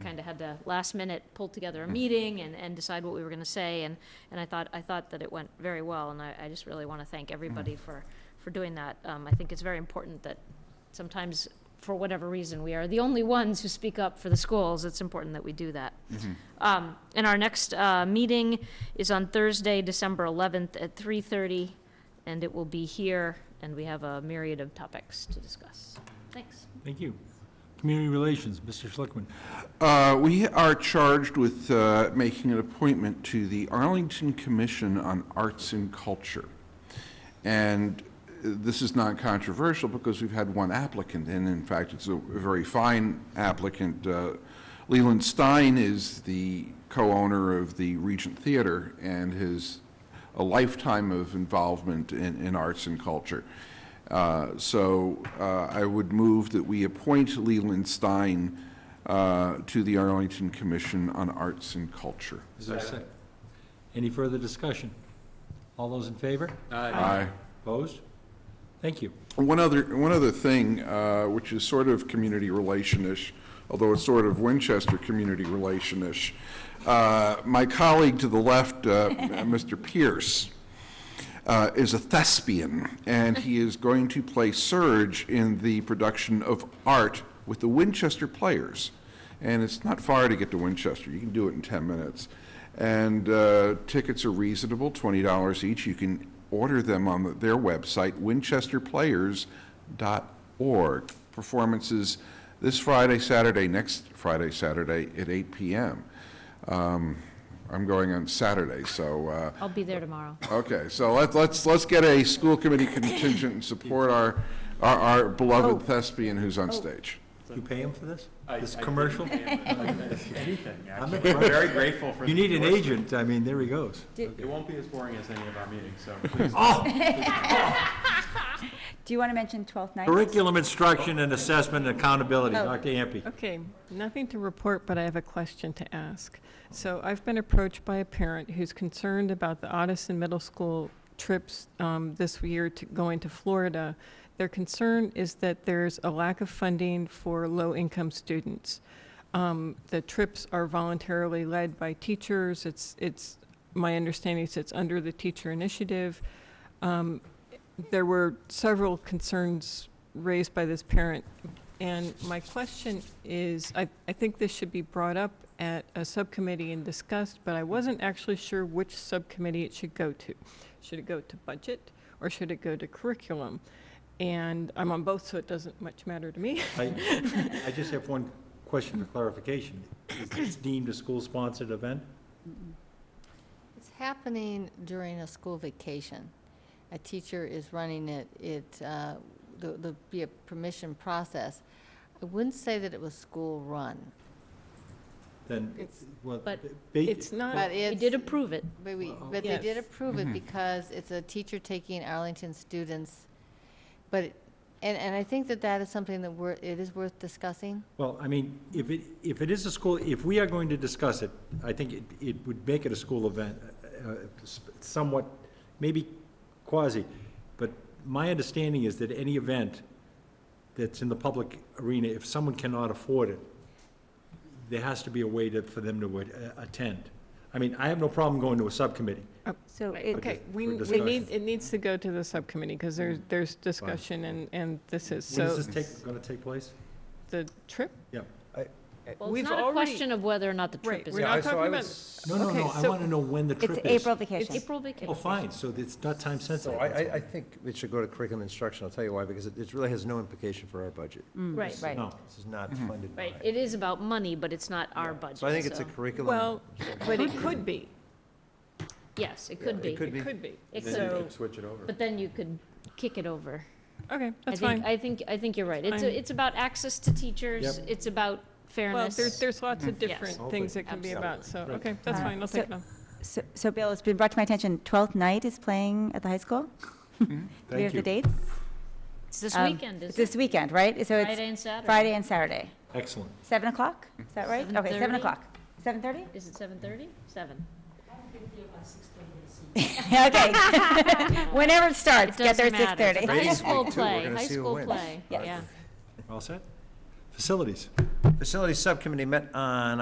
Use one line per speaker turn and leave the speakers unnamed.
kind of had to last minute pull together a meeting and, and decide what we were going to say. And, and I thought, I thought that it went very well, and I, I just really want to thank everybody for, for doing that. Um, I think it's very important that sometimes, for whatever reason, we are the only ones who speak up for the schools. It's important that we do that. Um, and our next, uh, meeting is on Thursday, December eleventh at three thirty, and it will be here, and we have a myriad of topics to discuss. Thanks.
Thank you. Community Relations, Mr. Schlickman.
Uh, We are charged with uh, making an appointment to the Arlington Commission on Arts and Culture. And uh, this is not controversial because we've had one applicant, and in fact, it's a very fine applicant. Uh, Leland Stein is the co-owner of the Regent Theater and has a lifetime of involvement in, in arts and culture. Uh, So uh, I would move that we appoint Leland Stein uh, to the Arlington Commission on Arts and Culture.
Is there a sec- Any further discussion? All those in favor?
Aye.
Opposed? Thank you.
One other, one other thing, uh, which is sort of community relation-ish, although it's sort of Winchester community relation-ish. Uh, My colleague to the left, uh, Mr. Pierce, uh, is a thespian, and he is going to play Surge in the production of Art with the Winchester Players. And it's not far to get to Winchester. You can do it in 10 minutes. And uh, tickets are reasonable, $20 each. You can order them on the- their website, winchesterplayers.org. Performances this Friday, Saturday, next Friday, Saturday at 8 p.m. Um, I'm going on Saturday, so uh,
I'll be there tomorrow.
Okay, so let's, let's, let's get a school committee contingent and support our, our, our beloved thespian who's on stage.
You pay him for this?
I-
This
I
commercial?
couldn't name it. Anything, actually.
impressed.
We're very grateful for.
You
the
need an
endorsement.
agent, I mean, there he goes.
It won't be as boring as any of our meetings, so please.
Do you want to mention Twelfth Night?
Curriculum instruction and assessment and accountability, Dr. Ampe.
Okay, nothing to report, but I have a question to ask. So I've been approached by a parent who's concerned about the Odison Middle School trips um, this year to going to Florida. Their concern is that there's a lack of funding for low-income students. Um, The trips are voluntarily led by teachers. It's, it's, my understanding is it's under the teacher initiative. Um, There were several concerns raised by this parent, and my question is, I, I think this should be brought up at a subcommittee and discussed, but I wasn't actually sure which subcommittee it should go to. Should it go to budget or should it go to curriculum? And I'm on both, so it doesn't much matter to me.
I I just have one question for clarification. Is this deemed a school-sponsored event?
It's happening during a school vacation. A teacher is running it, it, uh, there- there'll be a permission process. I wouldn't say that it was school-run,
Then,
It's-
well,
but
ba-
It's not,
but
We
it's.
did approve it.
But we, but they did
Yes.
approve it because it's a teacher taking Arlington students. But, it- and, and I think that that is something that we're, it is worth discussing.
Well, I mean, if it, if it is a school, if we are going to discuss it, I think it, it would make it a school event, uh, somewhat, maybe quasi. But my understanding is that any event that's in the public arena, if someone cannot afford it, there has to be a way to, for them to uh, attend. I mean, I have no problem going to a subcommittee.
So
Right.
it,
okay, we,
for
we
discussion. Mm.
need, it needs to go to the subcommittee because there's, there's discussion and, and this is,
When
so
is this take, gonna take place?
the trip?
Yeah.
Well,
We've
it's not a
already-
question of whether or not the trip
Right,
is.
we're not talking about,
No, no,
Okay,
no, I
so-
wanna know when the trip
it's
is.
April vacation.
April vacation.
Oh, fine, so it's not time
So
sensitive.
I, I, I think it should go to curriculum instruction, I'll tell you why, because it, it really has no implication for our budget.
Right,
Right.
No.
This is not funded by.
right. It is about money, but it's not our budget.
So I think it's a
so-
curriculum.
well, but it could be,
Yes, it could
it
be.
could
it could be.
It
Then you
could,
could switch it over.
but then you could kick it over.
Okay,
I
that's fine.
think, I think, I think you're right. It's,
fine.
a- it's about access to teachers.
Yep.
It's about
Well,
fairness.
there's, there's lots of
Yes.
different
Hopefully.
things it can be about, so,
Right.
okay, that's
Uh,
fine, I'll
so-
take it on.
So- So Bill, it's been brought to my attention, Twelfth Night is playing at the high school? Do we
Mm-hmm. Thank
have
you.
the dates?
It's this
Um,
weekend,
It's
is
this
it?
weekend, right? So
Friday
it's
and Saturday.
Friday and Saturday,
Excellent.
7 o'clock? Is that right? Okay, 7
7:30?
o'clock. 7:30?
Is it seven thirty? Seven.
Okay. Whenever it
It
starts, get there
doesn't
at
matter. It's a
6:30.
High
Ratings
school
week, too. We're
play,
gonna
high
see who
school
wins.
play, yeah.
All set? Facilities.
Facilities Subcommittee met on